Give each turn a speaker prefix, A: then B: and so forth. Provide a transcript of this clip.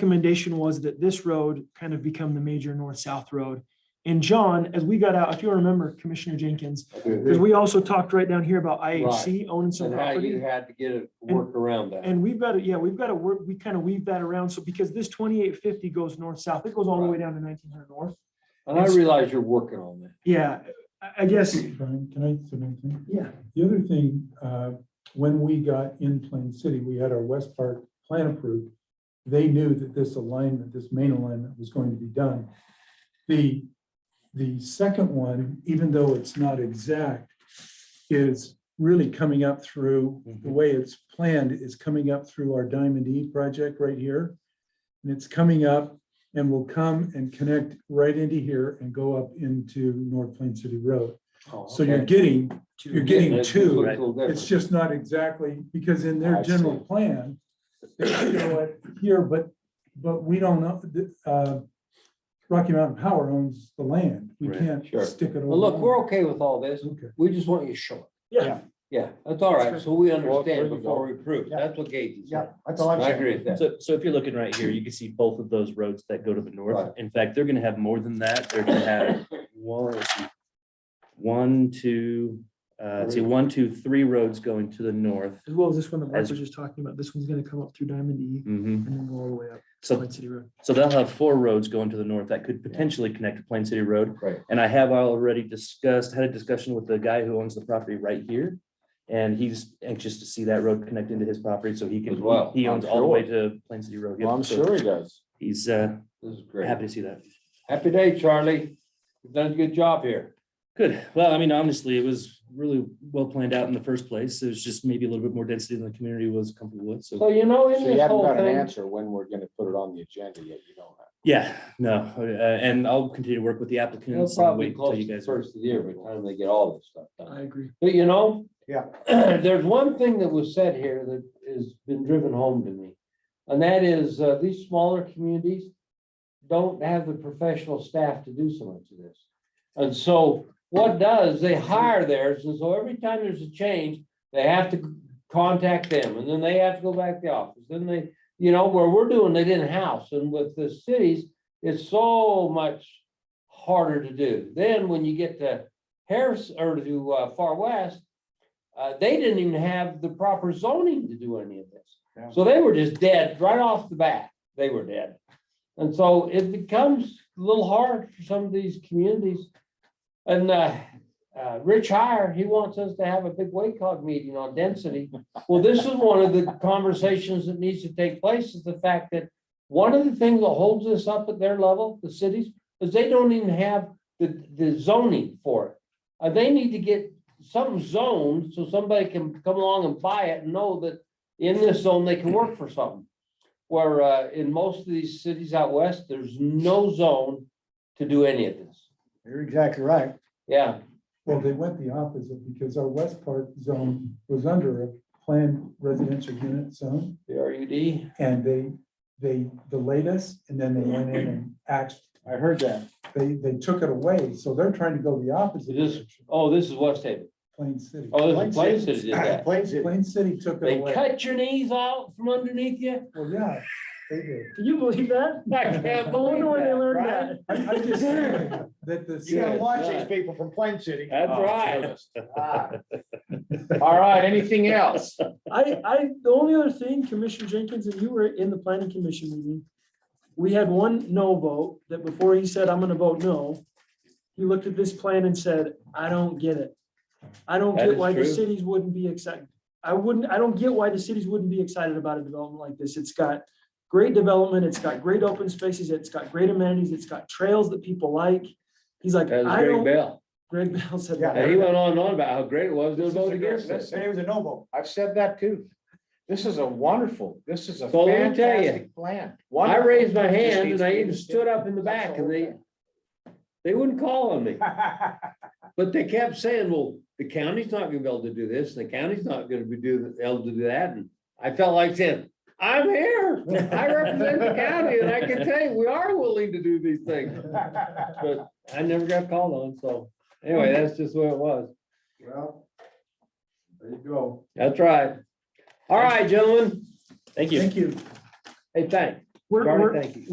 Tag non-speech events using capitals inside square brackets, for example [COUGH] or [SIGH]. A: recommendation was that this road kind of become the major north-south road. And John, as we got out, if you remember Commissioner Jenkins, because we also talked right down here about IHC owning some
B: And how you
A: property.
B: had to get it, work around that.
A: And we've got to, yeah, we've got to work, we kind of weave that around. So because this twenty-eight fifty goes north-south, it goes all the way down to nineteen hundred north.
B: And I realize you're working on that.
A: Yeah, I, I guess,
C: Brian, can I say anything?
A: yeah,
C: The other thing, uh, when we got in Plain City, we had our West Park plan approved. They knew that this alignment, this main alignment was going to be done. The, the second one, even though it's not exact, is really coming up through, the way it's planned is coming up through our Diamond E project right here. And it's coming up and will come and connect right into here and go up into North Plain City Road.
D: Oh,
C: So you're getting you're getting two. It's just not exactly, because in
B: I
C: their
B: see.
C: general plan, they show it here, but, but we don't know, the, uh, Rocky Mountain Power owns the land. We
E: Right,
C: can't
B: sure.
C: stick it over.
B: Well, look, we're okay with all this.
C: Okay.
B: We just want you to show it.
A: yeah.
B: Yeah, that's all right. So we understand
D: there you
B: before we prove.
D: Yeah.
B: That's what Gage is.
D: Yeah, that's all I'm
B: I
D: saying.
B: agree with that.
E: So, so if you're looking right here, you can see both of those roads that go to the north.
B: Right.
E: In fact, they're gonna have more than that. They're gonna have one, let's see, one, two, uh, let's see, one, two, three roads going to the north.
A: As well as this one that Mark
E: As-
A: was just talking about. This one's going to come up through Diamond E and
E: Mhm.
A: then go all the way up to
E: So,
A: Plain City Road.
E: so they'll have four roads going to the north that could potentially connect to Plain City Road.
B: Right.
E: And I have already discussed, had a discussion with the guy who owns the property right here. And he's anxious to see that road connect into his property so he can,
B: As well,
E: he owns
B: I'm
E: all the way
B: sure.
E: to Plain City Road.
D: Well, I'm
E: Yep, so
D: sure he does.
E: He's, uh,
B: This is great.
E: happy to see that.
B: Happy day, Charlie. You've done a good job here.
E: Good. Well, I mean, honestly, it was really well planned out in the first place. It was just maybe a little bit more density than the community was comfortable with.
B: So
E: So,
B: you know, in
D: So you
B: this
D: haven't
B: whole
D: got an
B: thing.
D: answer when we're gonna put it on the agenda yet, you don't have.
E: yeah, no, uh, and I'll continue to work with the
B: It'll
E: applicants. and
B: probably
E: wait till
B: close
E: you
B: to the
E: guys are-
B: first of the year by the time they get all this stuff done.
A: I agree.
B: But you know?
D: Yeah.
B: [CLEARS THROAT] There's one thing that was said here that has been driven home to me. And that is, uh, these smaller communities don't have the professional staff to do so much of this. And so what does, they hire theirs, and so every time there's a change, they have to contact them, and then they have to go back to the office, then they, you know, where we're doing it in-house, and with the cities, it's so much harder to do. Then when you get to Harris, or to uh, Far West, uh, they didn't even have the proper zoning to do any of
D: Yeah.
B: this. So they were just dead right off the bat. They were dead. And so it becomes a little hard for some of these communities. And uh, uh, Rich Hire, he wants us to have a big WACOG meeting on density. Well, this is one of the conversations that needs to take place is the fact that one of the things that holds us up at their level, the cities, is they don't even have the, the zoning for it. Uh, they need to get some zoned so somebody can come along and buy it and know that in this zone, they can work for something. Where, uh, in most of these cities out west, there's no zone to do any of this.
D: You're exactly right.
B: Yeah,
C: Well, they went the opposite because our West Park zone was under a planned residential unit zone.
B: the RUD,
C: And they, they delayed us and then they went in and axed,
D: I heard that.
C: they, they took it away. So they're trying to go the opposite
B: It is-
C: direction,
B: oh, this is West Haven,
C: Plain City.
B: oh, this is Plain City did that.
D: Plain City.
C: Plain City took it
B: They
C: away.
B: cut your knees out from underneath you,
C: [LAUGHS] Well, yeah, they did.
A: Can you believe that?
B: Oh, I can't believe that, Brian.
C: I, I [LAUGHS] just
B: [LAUGHS]
C: think that the.
D: You gotta
B: Good
D: watch
B: God.
D: these people from Plain City.
E: That's
D: Oh,
B: right.
D: goodness.
B: Oh,
D: Ah. All right, anything else?
A: I, I, the only other thing, Commissioner Jenkins, and you were in the planning commission meeting. We had one no vote that before he said, I'm gonna vote no, he looked at this plan and said, I don't get it. I don't
E: That
A: get
E: is
A: why the
E: true.
A: cities wouldn't be excited. I wouldn't, I don't get why the cities wouldn't be excited about a development like this. It's got great development, it's got great open spaces, it's got great amenities, it's got trails that people like. He's like,
B: that was
A: I
B: Greg
A: don't,
B: Bell,
A: Greg Bell said
D: Yeah,
B: and he
A: that.
B: went on and on about how great it was to
D: This is
B: vote
D: a
B: against
D: great-
B: this.
D: Say it was a no vote. I've said that too. This is a wonderful, this is a
B: So let me tell you,
D: fantastic plan.
B: I
D: Wonderful.
B: raised my
D: Just
B: hand
D: needs
B: and I
D: to be
B: even stood up in the back and they, they wouldn't call
D: [LAUGHS]
B: on me. But they kept saying, well, the county's not gonna be able to do this, the county's not gonna be do, able to do that, and I felt like saying, I'm here, I represent the county, and I can tell you, we are willing to do these things. But I never got called on, so, anyway, that's just the way it was,
D: Well, there you go.
B: that's right. All right, gentlemen,
E: Thank you.
C: Thank you.
B: hey, thanks,
F: We're, we're,
A: Barney, thank you.